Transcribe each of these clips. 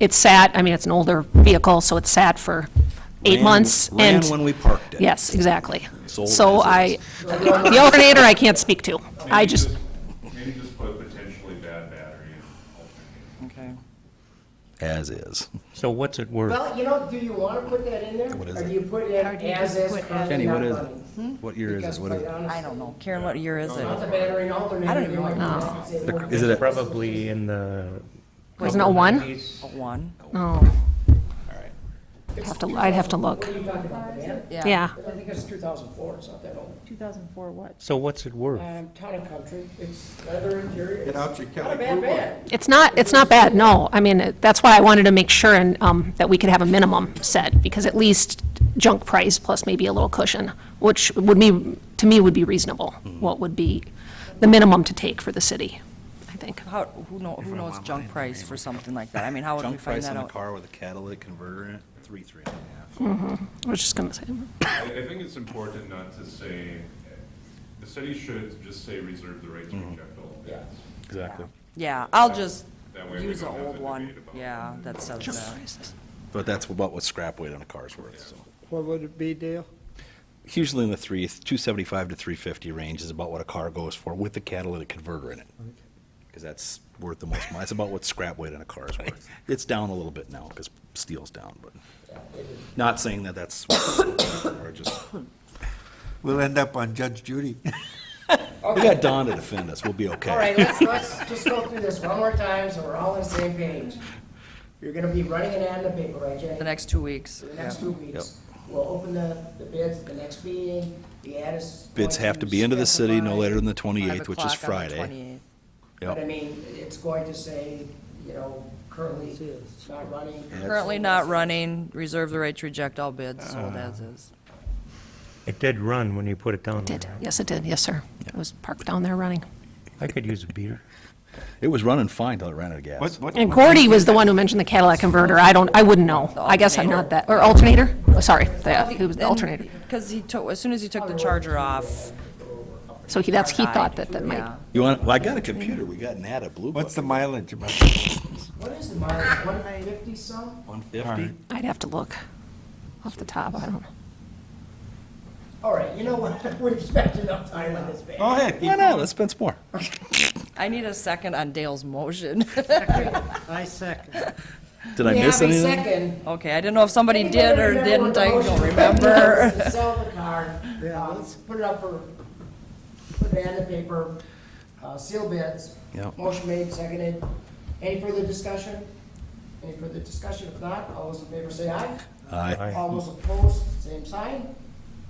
It sat, I mean, it's an older vehicle, so it sat for eight Ran- months and. Ran when we parked it. Yes, exactly. Sold So as I, the alternator I can't speak to. I just, Maybe just put potentially bad battery in alternating. Okay. As is. So what's it worth? Well, you know, do you want to put that in there? What is Or it? do you put it in Or do you as just is put currently Jenny, what not is it? Hmm? running? What year is Because it? What is quite it? I honestly, don't know. Karen, what year is it? Not the battery and alternator. I don't even you know. might just say one. Is it a- Probably in the. There's no oh one? upper 90s. One. oh. Have to, I'd have to look. What are you talking about, the van? Yeah, I think it's 2004, it's not that old. 2004 what? So what's it worth? Um, Town and country, it's leather interior. Get out your Not a Kelly bad van. it's not, it's not bad, no. I mean, it- that's why I wanted to make sure and, um, that we could have a minimum set, because at least junk price plus maybe a little cushion, which would be, to me, would be reasonable. Mm-hmm. What would be the minimum to take for the city, I think. How, who know, who knows junk price for something like that? I mean, how would we Junk find price that on a out? car with a catalytic converter in it, three, three and a half. I was just gonna say, I, I think it's important not to say, the city should just say reserve the right to Mm-hmm. reject all bids. Exactly. Yeah, I'll just That way we use an don't have old the one. debate about Yeah, that says junk that. prices. But that's about what scrap weight on a car's worth, so. What would it be, Dale? Usually in the three, two seventy-five to three fifty range is about what a car goes for with a catalytic converter in it. Because that's worth the most money. It's about what scrap weight on a car is worth. It's down a little bit now because steel's down, but not saying that that's, or just, We'll end up on Judge Judy. we got Don to defend us. We'll be okay. All right, let's, let's just go through this one more time, so we're all on the same page. You're gonna be running an ad in the paper, right, Jenny? The next two weeks. For the next two weeks. We'll open the, the bids at the next meeting, the ad is. Bids going have to be into the city no specify- later than the Five twenty-eighth, which is o'clock on the Friday. 28th. But I Yep. mean, it's going to say, you know, currently not running. Currently not running, reserve the right to reject all Ah. bids, sold as is. It did run when you put it down. Did, there. yes, it did, yes, sir. It was parked down there running. I could use a beer. It was running fine till it ran out of gas. And Gordy was the one who mentioned the Cadillac converter. I don't, I wouldn't know. I guess I'm not that, or alternator? Oh, Sorry, the- he was the alternator. Because he took, as soon as he took the charger off. So he, that's, he died. thought that that might, Yeah. You want, well, I got a computer. We got an ad at Blue Book. What's the mileage about? What is the mileage, one fifty some? One fifty? I'd have to look off the top, I don't know. All right, you know what, we've spent enough time on this van. Go ahead. Why not? Let's spend some more. I need a second on Dale's motion. I second. Did I We miss have a anything? second. Okay, I didn't know if somebody did or Anybody remember didn't, I what the don't motion remember. was to Sell the car, Yeah, um, let's- put it up for, put it in the paper, uh, seal bids. Yep. Motion made, seconded. Any further discussion? Any further discussion? If not, all those in favor say aye. Aye. All those opposed, same sign.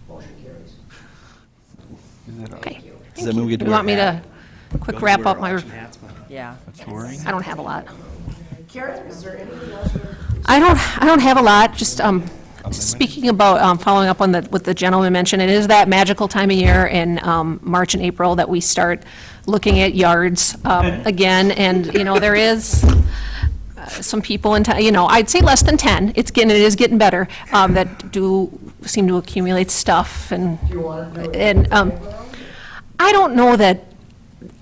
Motion carries. Okay. Does that mean we get to Do wear you want me hats? to quick wrap up my, Yeah. I don't have a lot. Karen, is there anything else? you- I don't, I don't have a lot, just, um, speaking about, um, following up on the, what the gentleman mentioned, it is that magical time of year in, um, March and April that we start looking at yards, um, again, and, you know, there is uh, some people in, town. you know, I'd say less than ten, it's getting, it is getting better, um, that do seem to accumulate stuff and, You want to do it? and, um, I don't know that,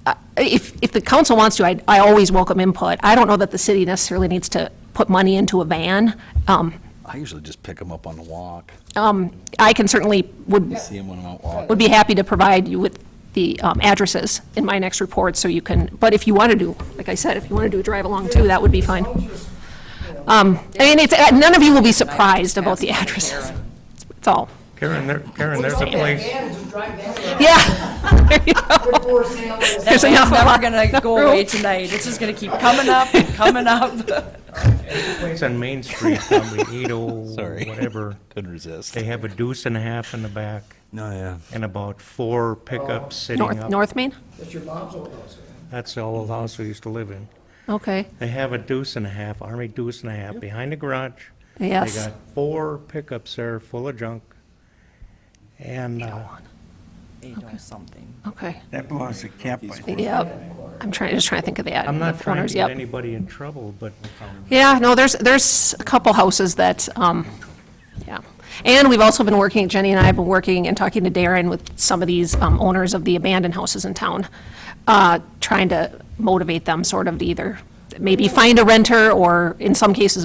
uh, if, if the council wants to, I, I always welcome input. I don't know that the city necessarily needs to put money into a van. Um, I usually just pick them up on the walk. um, I can certainly, would, See them when I'm out walking. would be happy to provide you with the um, addresses in my next report, so you can, but if you want to do, like I said, if you want to do a drive-along too, that would be fine. Um, I mean, it's, uh, none of you will be surprised about the addresses, that's all. Karen, there, Karen, there's a Just get that place, van and just drive that around. Yeah, there you go. Put for sale. There's It's enough never of gonna go away tonight, it's just gonna keep coming up and coming up. it's on Main Street, probably eight oh, Sorry. whatever. Couldn't resist. They have a deuce and a half in the back No, yeah. and about four pickups Oh. sitting North, up. North Main? That's your mom's old house. That's the old house we used to live in. Okay, They have a deuce and a half, army deuce and a half behind the garage. yes. They got four pickups there full of junk. And uh, Eight oh something. Okay, That belongs to Camp Life. yep. I'm trying, just trying to think of the ad. I'm not the trying owners, to get yep. anybody in trouble, but um, Yeah, no, there's, there's a couple houses that, um, yeah. And we've also been working, Jenny and I have been working and talking to Darren with some of these um, owners of the abandoned houses in town, uh, trying to motivate them sort of to either maybe find a renter or in some cases